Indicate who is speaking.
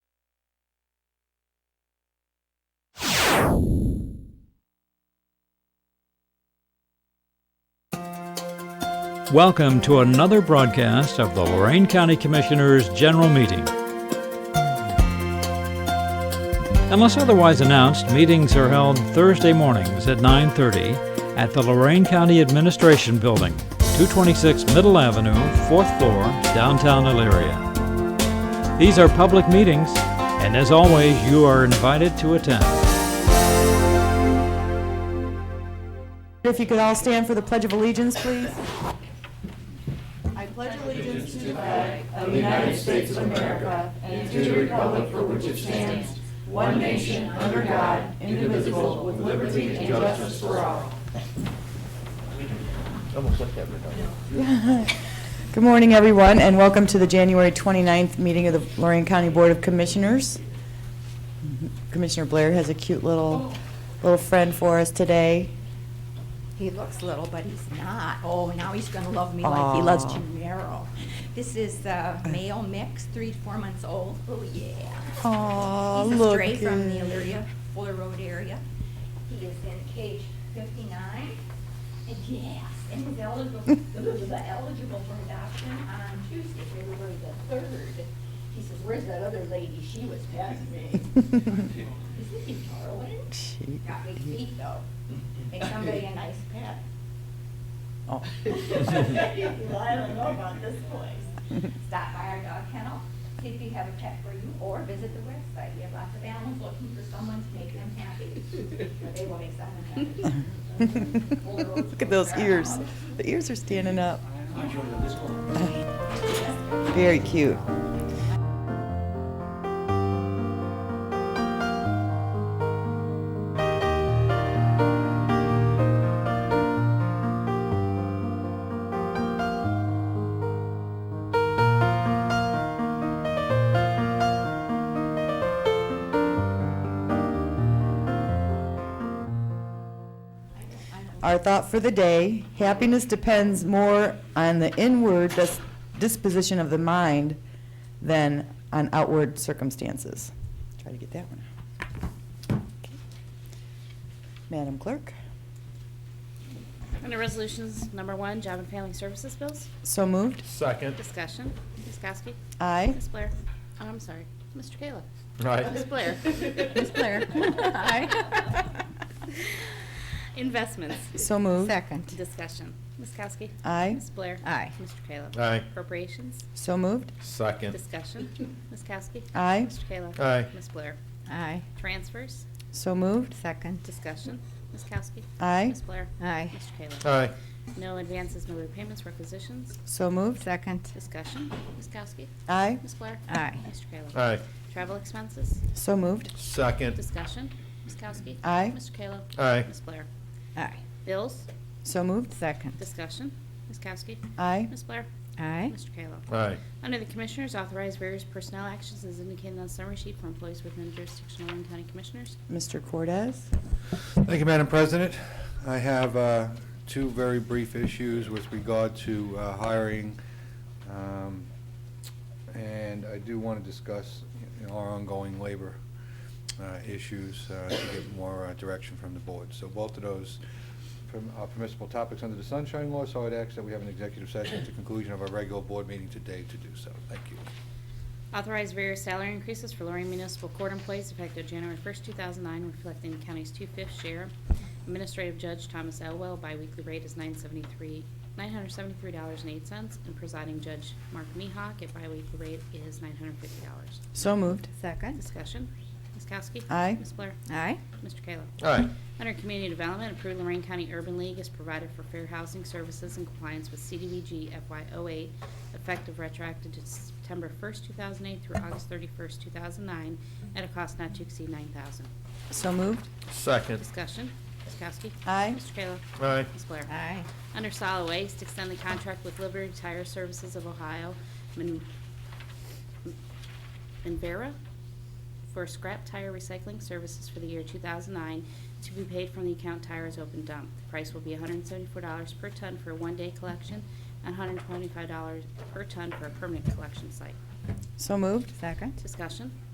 Speaker 1: Welcome to another broadcast of the Lorraine County Commissioners' General Meeting. Unless otherwise announced, meetings are held Thursday mornings at 9:30 at the Lorraine County Administration Building, 226 Middle Avenue, 4th floor, downtown Elyria. These are public meetings, and as always, you are invited to attend.
Speaker 2: If you could all stand for the Pledge of Allegiance, please. I pledge allegiance Good morning, everyone, and welcome to the January 29th meeting of the Lorraine County Board of Commissioners. Commissioner Blair has a cute little, little friend for us today.
Speaker 3: He looks little, but he's not. Oh, now he's gonna love me like he loves
Speaker 2: Aw.
Speaker 3: Gennaro. This is the male mix, three, to four months old. Oh, yeah.
Speaker 2: Aw,
Speaker 3: He's a
Speaker 2: look
Speaker 3: stray from the
Speaker 2: at-
Speaker 3: Elyria, Fuller Road area. He is in cage fifty-nine. And yes, and he's eligible, eligible for adoption on Tuesday, February the third. He says, where's that other lady? She was past me. Is this in Darwin?
Speaker 2: She-
Speaker 3: Got big feet though. Make somebody a nice pet.
Speaker 2: Oh.
Speaker 3: Well, I don't know about this place. Stop by our dog kennel, see if you have a pet for you, or visit the website. We have lots of animals looking for someone to make them happy. Or they will make someone happy.
Speaker 2: Look at those ears. The ears are standing up. Very cute. Our thought for the day, happiness depends more on the inward dis- disposition of the mind than on outward circumstances. Try to get that one. Okay. Madam Clerk,
Speaker 4: Under Resolutions Number One, Job and Family Services Bills,
Speaker 2: so moved.
Speaker 5: Second.
Speaker 4: discussion, Ms. Kowski,
Speaker 2: Aye.
Speaker 4: Ms. Blair, oh, I'm sorry, Mr. Kayla, Ms.
Speaker 5: Right.
Speaker 4: Blair, Ms. Blair, aye. Investments,
Speaker 2: So moved.
Speaker 3: Second.
Speaker 4: discussion, Ms. Kowski,
Speaker 2: Aye.
Speaker 4: Ms. Blair,
Speaker 3: Aye.
Speaker 4: Mr. Kayla.
Speaker 5: Aye.
Speaker 4: Appropriations,
Speaker 2: So moved.
Speaker 5: Second.
Speaker 4: discussion, Ms. Kowski,
Speaker 2: Aye.
Speaker 4: Mr. Kayla.
Speaker 5: Aye.
Speaker 4: Ms. Blair,
Speaker 3: Aye.
Speaker 4: transfers,
Speaker 2: So moved.
Speaker 3: Second.
Speaker 4: discussion, Ms. Kowski,
Speaker 2: Aye.
Speaker 4: Ms. Blair,
Speaker 3: Aye.
Speaker 4: Mr. Kayla.
Speaker 5: Aye.
Speaker 4: No advances, no repayments, requisitions,
Speaker 2: So moved.
Speaker 3: Second.
Speaker 4: discussion, Ms. Kowski,
Speaker 2: Aye.
Speaker 4: Ms. Blair.
Speaker 3: Aye.
Speaker 4: Mr. Kayla.
Speaker 5: Aye.
Speaker 4: Travel expenses,
Speaker 2: So moved.
Speaker 5: Second.
Speaker 4: discussion, Ms. Kowski.
Speaker 2: Aye.
Speaker 4: Mr. Kayla.
Speaker 5: Aye.
Speaker 4: Ms. Blair.
Speaker 3: Aye.
Speaker 4: Bills,
Speaker 2: So moved.
Speaker 3: Second.
Speaker 4: discussion, Ms. Kowski.
Speaker 2: Aye.
Speaker 4: Ms. Blair.
Speaker 3: Aye.
Speaker 4: Mr. Kayla.
Speaker 5: Aye.
Speaker 4: Under the Commissioners, authorize various personnel actions as indicated on summary sheet for employees within jurisdiction of Lorraine County Commissioners.
Speaker 2: Mr. Cortez?
Speaker 6: Thank you, Madam President. I have uh, two very brief issues with regard to uh, hiring, um, and I do want to discuss you know, our ongoing labor uh, issues uh, to get more uh, direction from the board. So both of those perm- are permissible topics under the Sunshine Law, so I'd ask that we have an executive session at the conclusion of our regular board meeting today to do so. Thank you.
Speaker 4: Authorize various salary increases for Lorraine Municipal Court employees effective January 1st, 2009, reflecting the county's two-fifth share. Administrative Judge Thomas Elwell, biweekly rate is 973 $973.08, and presiding Judge Mark Mehawk at biweekly rate is $950.
Speaker 2: So moved.
Speaker 3: Second.
Speaker 4: Discussion. Ms. Kowski?
Speaker 2: Aye.
Speaker 4: Ms. Blair?
Speaker 3: Aye.
Speaker 4: Mr. Kayla?
Speaker 5: Aye.
Speaker 4: Under Community Development, approved Lorraine County Urban League is provided for fair housing services in compliance with CDBG FY08, effective retroactive to September 1st, 2008 through August 31st, 2009, at a cost not to exceed 9000
Speaker 2: So moved.
Speaker 5: Second.
Speaker 4: Discussion, Ms. Kowski.
Speaker 2: Aye.
Speaker 4: Mr. Kayla.
Speaker 5: Aye.
Speaker 4: Ms. Blair.
Speaker 3: Aye.
Speaker 4: Under solid waste, extend the contract with Liberty Tire Services of Ohio, Min- Minvera, for scrap tire recycling services for the year 2009 to be paid from the account Tires Open Dump. The price will be $174 per ton for a one-day collection and $125 per ton for a permanent collection site.
Speaker 2: So moved.
Speaker 3: Second.
Speaker 4: Discussion,